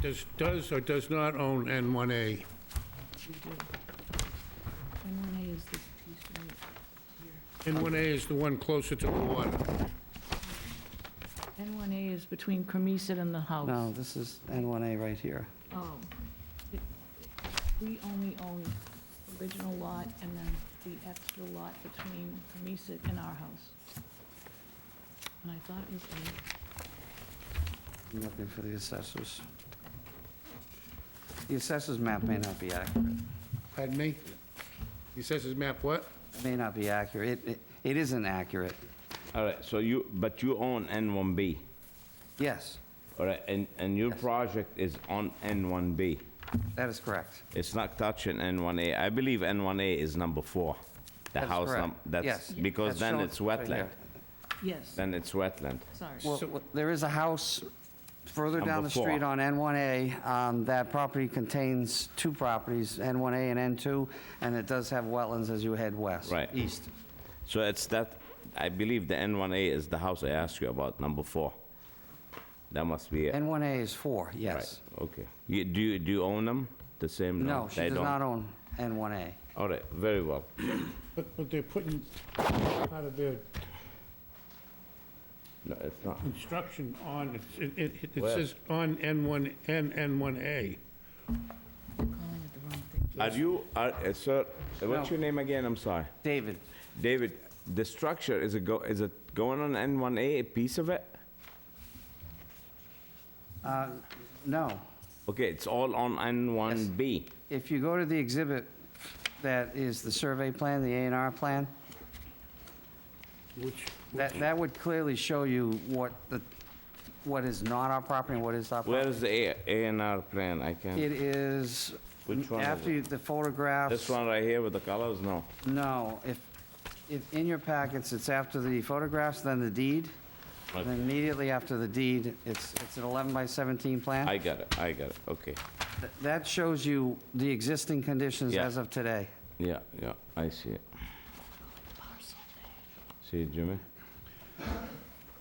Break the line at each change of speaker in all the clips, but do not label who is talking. does, does or does not own N1A.
We do. And one A is this piece right here.
N1A is the one closer to the water.
And one A is between Cremisa and the house.
No, this is N1A right here.
Oh. It- We only own the original lot and then the extra lot between Cremisa and our house. And I thought it was A.
I'm looking for the assessors. The assessors map may not be accurate.
Pardon me? He says his map what?
It May not be accurate. It- It, it isn't accurate.
All right, so you, but you own N1B,
Yes,
all right, and, and your project is on N1B.
that is correct.
It's not touching N1A. I believe N1A is number four. The
That's
house,
correct.
num- that's,
Yes.
because
That's
then
shown
it's
right
wetland,
here.
Yes,
then it's wetland.
sorry.
Well, w- there is a house further down
Number
the street
four.
on N1A. um, That property contains two properties, N1A and N2, and it does have wetlands as you head west.
Right.
East.
So it's that, I believe the N1A is the house I asked you about, number four. That must be it.
N1A is four,
Right,
yes.
okay. You, do you, do you own them? The same?
No, she
they
does
don't?
not own N1A.
All right, very well.
But, but they're putting part of their
No, it's not.
construction on, it's- it, it it
Where?
says on N1, N, N1A.
I'm calling it the wrong thing.
Are you, are, uh, sir, what's
No.
your name again? I'm sorry.
David,
David, the structure, is it go, is it going on N1A, a piece of it?
no.
Okay, it's all on N1B.
If you go to the exhibit that is the survey plan, the A and R plan,
Which,
that, that would clearly show you what the, what is not our property and what is our
Where
property.
is the A, A and R plan? I
It
can't,
is,
Which one is
after you- the photographs.
this one right here with the colors, no.
No, if, if in your packets, it's after the photographs, then the deed, and then immediately after the deed, it's, it's an 11 by 17 plan.
I got it, I got it, okay.
Th- That shows you the existing conditions
Yeah.
as of today.
Yeah, yeah, I see it. See it, Jimmy?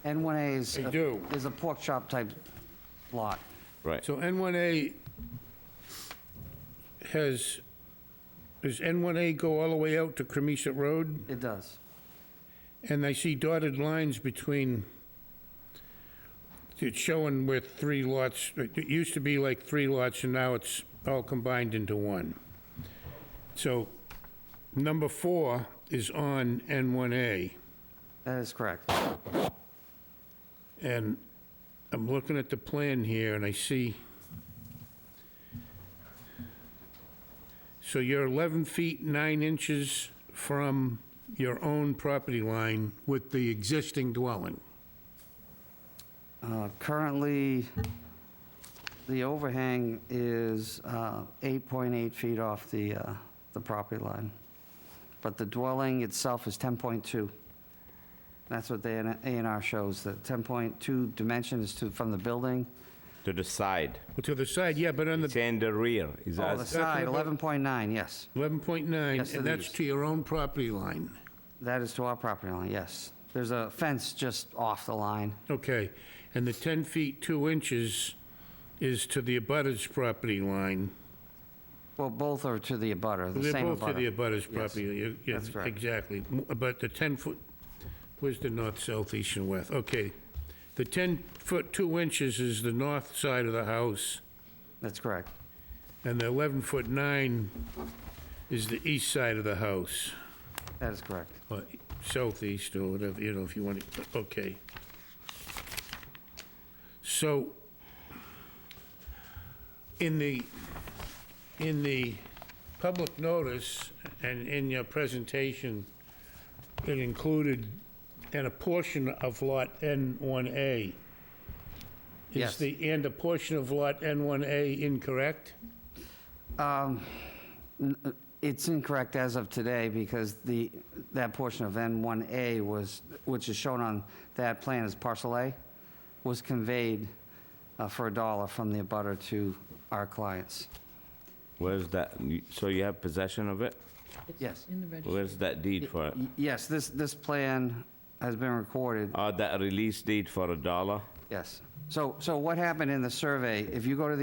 N1A is.
They
a-
do.
Is a pork chop type lot.
Right,
so N1A has, does N1A go all the way out to Cremisa Road?
It does.
And I see dotted lines between, it's showing where three lots, it used to be like three lots, and now it's all combined into one. So number four is on N1A,
That is correct. Uh,
and I'm looking at the plan here, and I see, so you're 11 feet 9 inches from your own property line with the existing dwelling.
Uh, Currently, the overhang is uh, 8.8 feet off the, uh, the property line, but the dwelling itself is 10.2. That's what the A and R shows, that 10.2 dimension is to, from the building.
to the side.
To the side, yeah, but on the
It's in the rear. He's
Oh, the
asked,
side,
about-
11.9, yes.
11.9,
Yes,
and
it
that's
is.
to your own property line.
That is to our property line, yes. There's a fence just off the line.
Okay, and the 10 feet 2 inches is to the abutter's property line.
Well, both are to the abutter, the
They're
same
both to the
abutter.
abutter's
Yes,
property. you- yeah,
that's correct.
Exactly, M- but the 10 foot, where's the north, south, east, and west? Okay, the 10 foot 2 inches is the north side of the house,
That's correct.
and the 11 foot 9 is the east side of the house,
That is correct.
or southeast, or whatever, you know, if you want to, okay. So, in the, in the public notice and in your presentation, it included, and a portion of lot N1A.
Yes.
Is the, and a portion of lot N1A incorrect?
Um, uh, It's incorrect as of today because the, that portion of N1A was, which is shown on that plan as parcel A, was conveyed uh, for a dollar from the abutter to our clients.
where's that? You- So you have possession of it?
Yes.
In the registry.
Where's that deed for it?
Y- Yes, this, this plan has been recorded,
Oh, that release Ah, deed for a dollar?
yes. So, so what happened in the survey, if you go to the